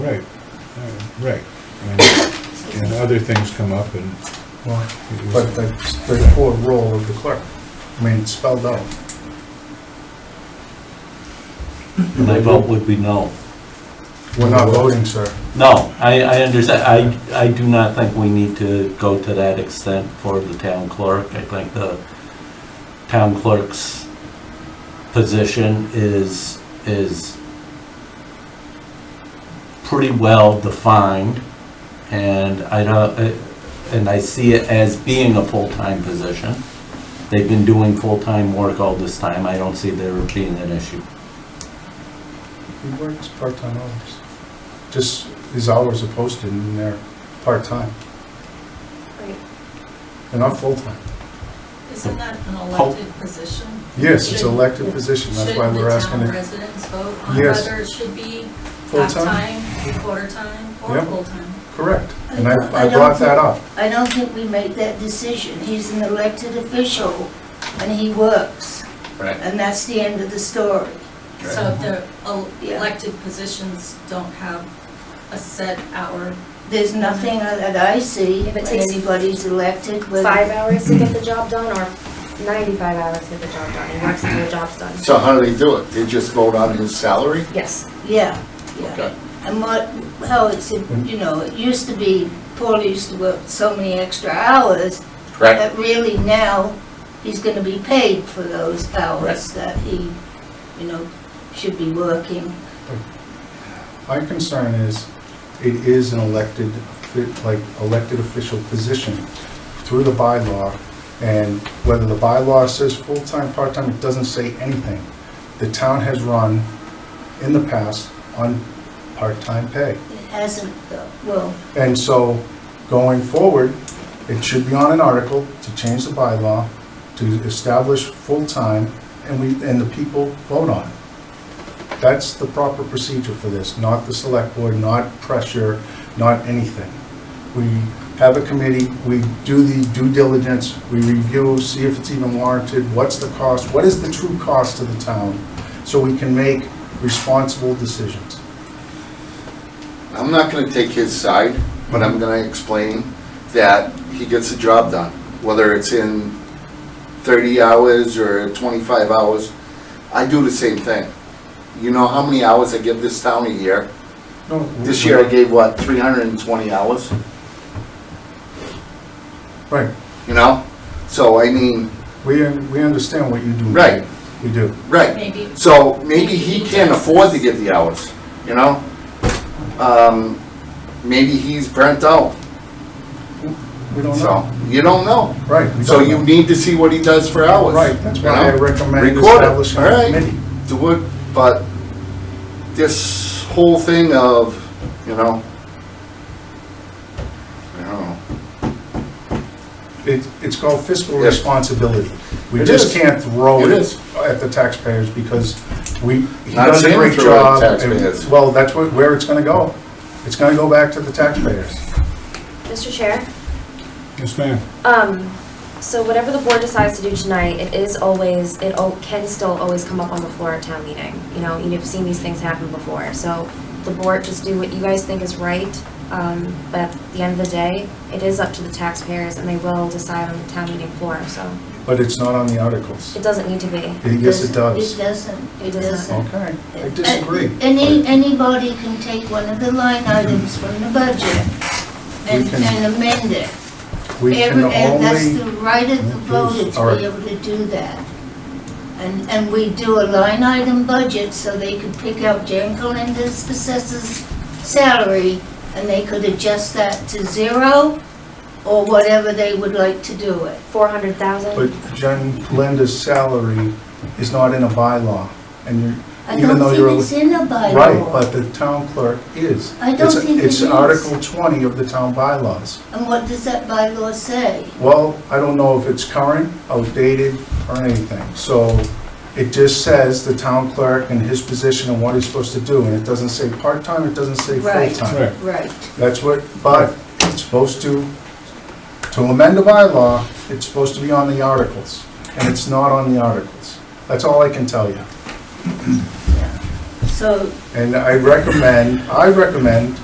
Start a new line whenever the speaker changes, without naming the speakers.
Right, uh, right. And- And other things come up and
Well,
it
But
was,
the straightforward role of the clerk, I mean, it's spelled out.
My vote would be no.
We're not voting, sir.
No, I, I understand, I, I do not think we need to go to that extent for the town clerk. I think the town clerk's position is, is pretty well defined, and I don't, uh, and I see it as being a full-time position. They've been doing full-time work all this time, I don't see there being an issue.
He works part-time hours. Just, his hours are posted and they're part-time,
Right,
they're not full-time.
isn't that an elected position?
Yes, it's an elected position, that's why
Shouldn't
we're
the
asking
town
it
residents vote on
Yes.
whether it should be
full-time.
half-time, three-quarter-time, or
Yep.
full-time?
Correct, and I,
I
I
don't
brought that up.
I don't think we make that decision. He's an elected official and he works.
Right.
And that's the end of the story.
So if the el-
Yeah.
elected positions don't have a set hour,
There's nothing that I see
If it
when
takes
anybody's elected with.
five hours to get the job done or ninety-five hours to get the job done, he works until the job's done.
So how do they do it? They just vote on his salary?
Yes,
Yeah, yeah.
Okay.
And what, how it's, you know, it used to be, Paul used to work so many extra hours. That really now, he's gonna be paid for those hours that he, you know, should be working.
My concern is, it is an elected, offi- like, elected official position through the bylaw, and whether the bylaw says full-time, part-time, it doesn't say anything. The town has run, in the past, on part-time pay.
It hasn't, though. well,
And so, going forward, it should be on an article to change the bylaw, to establish full-time, and we, and the people vote on it. That's the proper procedure for this, not the select board, not pressure, not anything. We have a committee, we do the due diligence, we review, see if it's even warranted, what's the cost, what is the true cost to the town, so we can make responsible decisions.
I'm not gonna take his side, but I'm gonna explain that he gets the job done, whether it's in thirty hours or twenty-five hours. I do the same thing. You know how many hours I give this town a year?
No,
This year I
Mm-hmm.
gave, what, three hundred and twenty hours,
Right,
you know? So, I mean,
we, we understand what you do.
right,
We do.
right.
maybe
So maybe he can't afford to give the hours, you know? Um, maybe he's burnt out,
We don't
so,
know.
you don't know.
Right. we
So
don't
you
know.
need to see what he does for hours.
Right, that's
you
why I
know?
recommend
Record it,
establishing
all
a
right.
committee.
Do it, but this whole thing of, you know, I don't know.
It, it's called fiscal
Yes.
responsibility. We
It
just
is.
can't throw
It
it
is.
at the taxpayers because we, he
Not
does a
saying
great
throw it at
job. and-
taxpayers.
Well, that's where, where it's gonna go. It's gonna go back to the taxpayers.
Mr. Chair,
yes, ma'am.
um, so whatever the board decides to do tonight, it is always, it al- can still always come up on the floor at town meeting. You know, you've seen these things happen before, so the board just do what you guys think is right. Um, but at the end of the day, it is up to the taxpayers and they will decide on the town meeting floor, so
But it's not on the articles.
it doesn't need to be.
Yes, it
It
does.
doesn't, it
It doesn't.
doesn't.
Okay, I disagree.
Any, anybody can take one of the line items from the budget and
We can-
and amend it.
We can
Every- And that's the
only,
right of the voter
All
to
right.
be able to do that. And, and we do a line item budget so they could pick out Jan Colinda's assessor's salary and they could adjust that to zero or whatever they would like to do it.
Four hundred thousand?
but Jen, Linda's salary is not in a bylaw. And you're,
I
Even
don't
though you're a-
think it's in a bylaw.
Right, but the town clerk is.
I don't
It's-
think it
It's
is.
Article 20 of the town bylaws.
And what does that bylaw say?
Well, I don't know if it's current, outdated, or anything. So it just says the town clerk and his position and what he's supposed to do, and it doesn't say part-time, it doesn't say
Right.
full-time.
Right,
Right.
That's what, but it's supposed to, to amend a bylaw, it's supposed to be on the articles, and it's not on the articles. That's all I can tell you.
So
And I recommend, I recommend